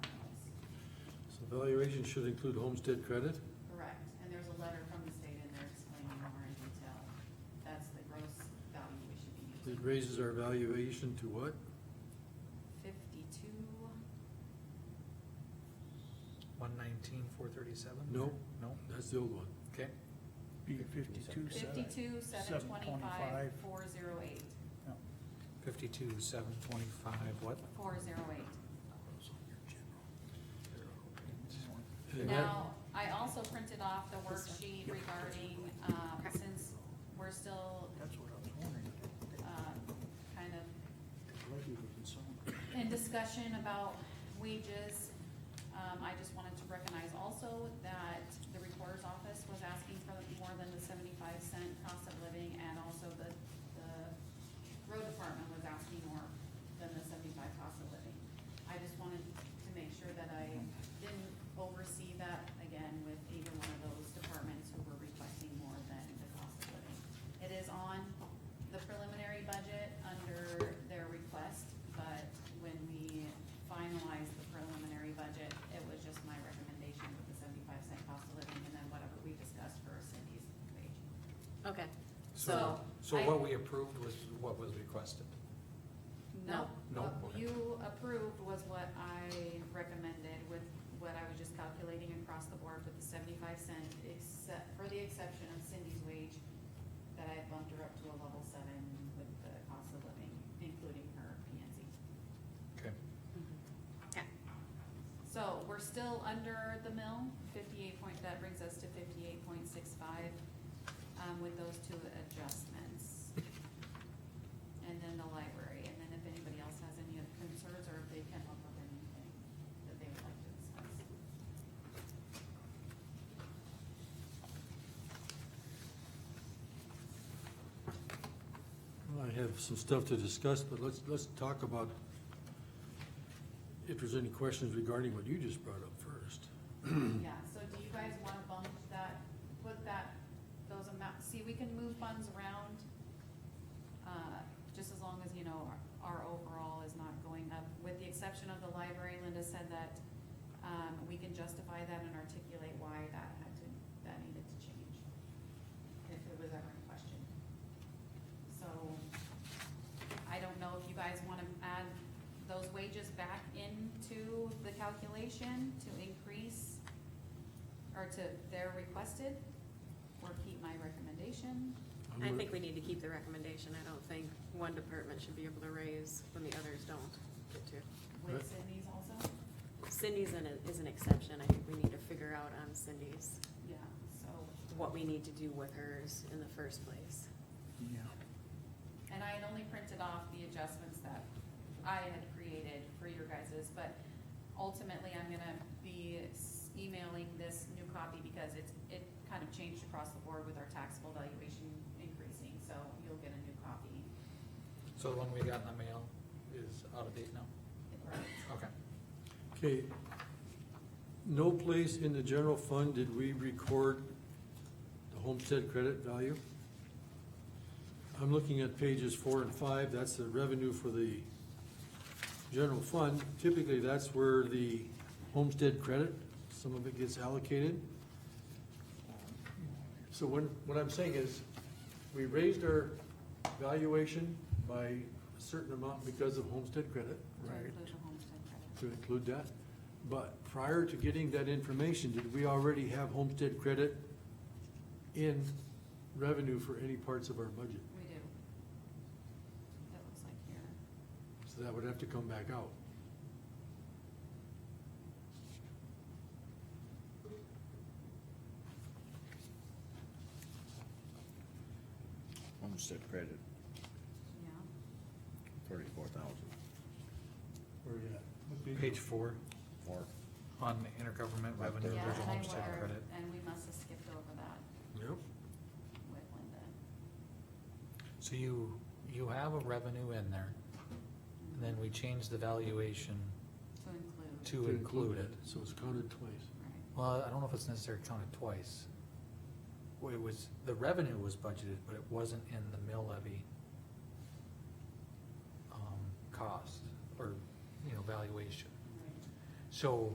Valuation should include homestead credit? Correct, and there's a letter from the state in there explaining more in detail. That's the gross value we should be It using. raises our valuation to what? Fifty-two, One nineteen, four thirty-seven? No. No, That's the old one. okay. Be fifty-two seven. fifty-two, seven Seven twenty-five, twenty-five. four zero eight, Fifty-two, seven twenty-five, what? four zero eight. And that- Now, I also printed off the worksheet regarding, um, since we're still, That's what I was wondering. uh, kind of The levy was in some- in discussion about wages, um, I just wanted to recognize also that the recorder's office was asking for more than the seventy-five cent cost of living, and also the, the road department was asking more than the seventy-five cost of living. I just wanted to make sure that I didn't oversee that again with either one of those departments who were requesting more than the cost of living. It is on the preliminary budget under their request, but when we finalized the preliminary budget, it was just my recommendation with the seventy-five cent cost of living and then whatever we discussed for Cindy's wage. Okay. So. So I- what we approved was what was requested. No, No, what okay. you approved was what I recommended with what I was just calculating across the board with the seventy-five cent, except, for the exception of Cindy's wage, that I bumped her up to a level seven with the cost of living, including her P and Z. Okay. Okay. So we're still under the mill, fifty-eight point, that brings us to fifty-eight point six five, um, with those two adjustments. And then the library, and then if anybody else has any other concerns, or if they can help with anything that they would like to discuss. I have some stuff to discuss, but let's, let's talk about if there's any questions regarding what you just brought up first. Yeah, so do you guys wanna bump that, put that, those amounts, see, we can move funds around, uh, just as long as, you know, our, our overall is not going up, with the exception of the library, Linda said that, um, we can justify that and articulate why that had to, that needed to change, if it was ever in question. So, I don't know if you guys wanna add those wages back into the calculation to increase or to, they're requested, or keep my recommendation. I'm I gonna- think we need to keep the recommendation. I don't think one department should be able to raise when the others don't get to. With Right. Cindy's also? Cindy's an, is an exception. I think we need to figure out on Cindy's Yeah, so, what we need to do with hers in the first place. Yeah. and I had only printed off the adjustments that I had created for your guys's, but ultimately, I'm gonna be s- emailing this new copy because it's, it kind of changed across the board with our taxable valuation increasing, so you'll get a new copy. So the one we got in the mail is out of date now? Right. Okay. Okay. No place in the general fund did we record the homestead credit value? I'm looking at pages four and five, that's the revenue for the general fund. Typically, that's where the homestead credit, some of it gets allocated. So when, what I'm saying is, we raised our valuation by a certain amount because of homestead credit To include the homestead credit. to include that. But prior to getting that information, did we already have homestead credit in revenue for any parts of our budget? We do. That looks like here. So that would have to come back out. Homestead credit, Yeah. thirty-four thousand. Where you at? Page four Or, on the intergovernment Right revenue, there. Yeah, there's a and I homestead wonder- credit. And we must have skipped over that Yep. with Linda. So you, you have a revenue in there, and then we change the valuation To include. to include it. So it's counted twice. Right. Well, I don't know if it's necessarily counted twice. Well, It was, the revenue was budgeted, but it wasn't in the mill levy um, cost or, you know, valuation. Right. So